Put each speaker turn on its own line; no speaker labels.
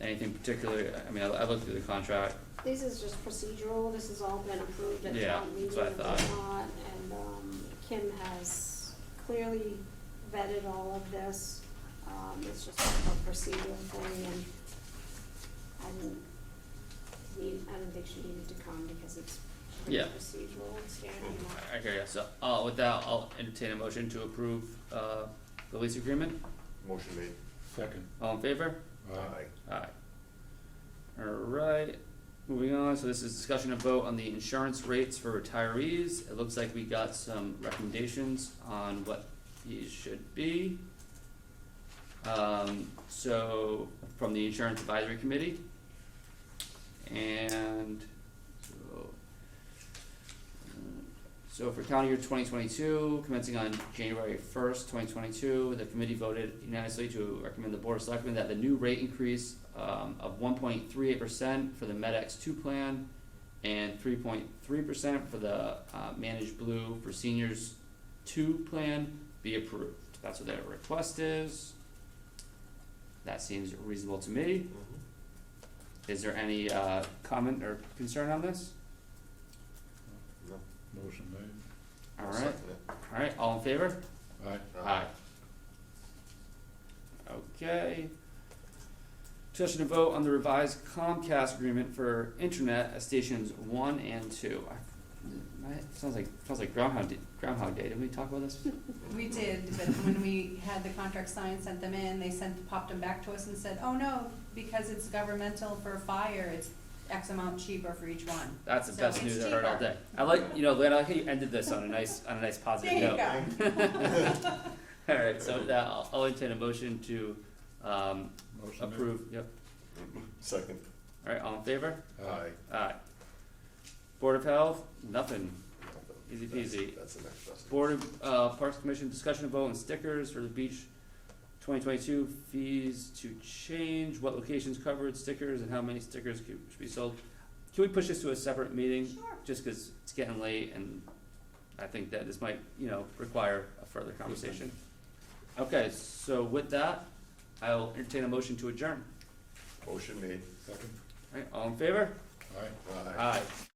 Anything particular, I mean, I, I looked through the contract,
This is just procedural, this has all been approved at
Yeah,
town
that's
meeting
what I
and
thought.
whatnot, and, um, Kim has clearly vetted all of this. Um, it's just a procedural thing, and I didn't need, I didn't think she needed to come because it's pretty
Yeah.
procedural, it's standard.
I hear ya, so, uh, with that, I'll entertain a motion to approve, uh, the lease agreement,
Motion made.
Second.
all in favor? Aye. Alright, moving on, so this is discussion of vote on the insurance rates for retirees. It looks like we got some recommendations on what these should be. Um, so, from the insurance advisory committee. And, so. uh, So for county year twenty twenty-two, commencing on January first, twenty twenty-two, the committee voted unanimously to recommend the board of selectmen that the new rate increase um of one point three eight percent for the MedX two plan and three point three percent for the uh Managed Blue for seniors two plan be approved. That's what their request is. That seems reasonable to me. Is there any uh comment or concern on this?
Motion made.
I'll
Alright,
second it.
alright, all in favor?
Aye.
Aye. Okay. Discussion and vote on the revised Comcast agreement for internet at stations one and two. I- my- Sounds like, sounds like Groundhog Day, Groundhog Day, didn't we talk about
Hmm.
this?
We did, but when we had the contract signed, sent them in, they sent, popped them back to us and said, oh no, because it's governmental for fire, it's X amount cheaper for each one.
That's the
So
best
it's
news I've heard all
cheaper.
day. I like, you know, Lynn, I like how you ended this on a nice, on a nice positive
There
note.
you go.
Alright, so with that, I'll, I'll entertain a motion to, um,
Motion made.
approve, yep,
Second.
alright, all in favor?
Aye.
Aye. Board of Health, nothing. Easy
That's-
peasy.
That's the next best.
Board of, uh, Parks Commission discussion of vote on stickers for the beach twenty twenty-two fees to change, what locations covered, stickers, and how many stickers could, should be sold. Can we push this to a separate meeting?
Sure.
Just cause it's getting late and I think that this might, you know, require a further conversation. Okay, so with that, I'll entertain a motion to adjourn.
Motion made.
Second.
Alright, all in favor?
Aye.
Aye.
Aye.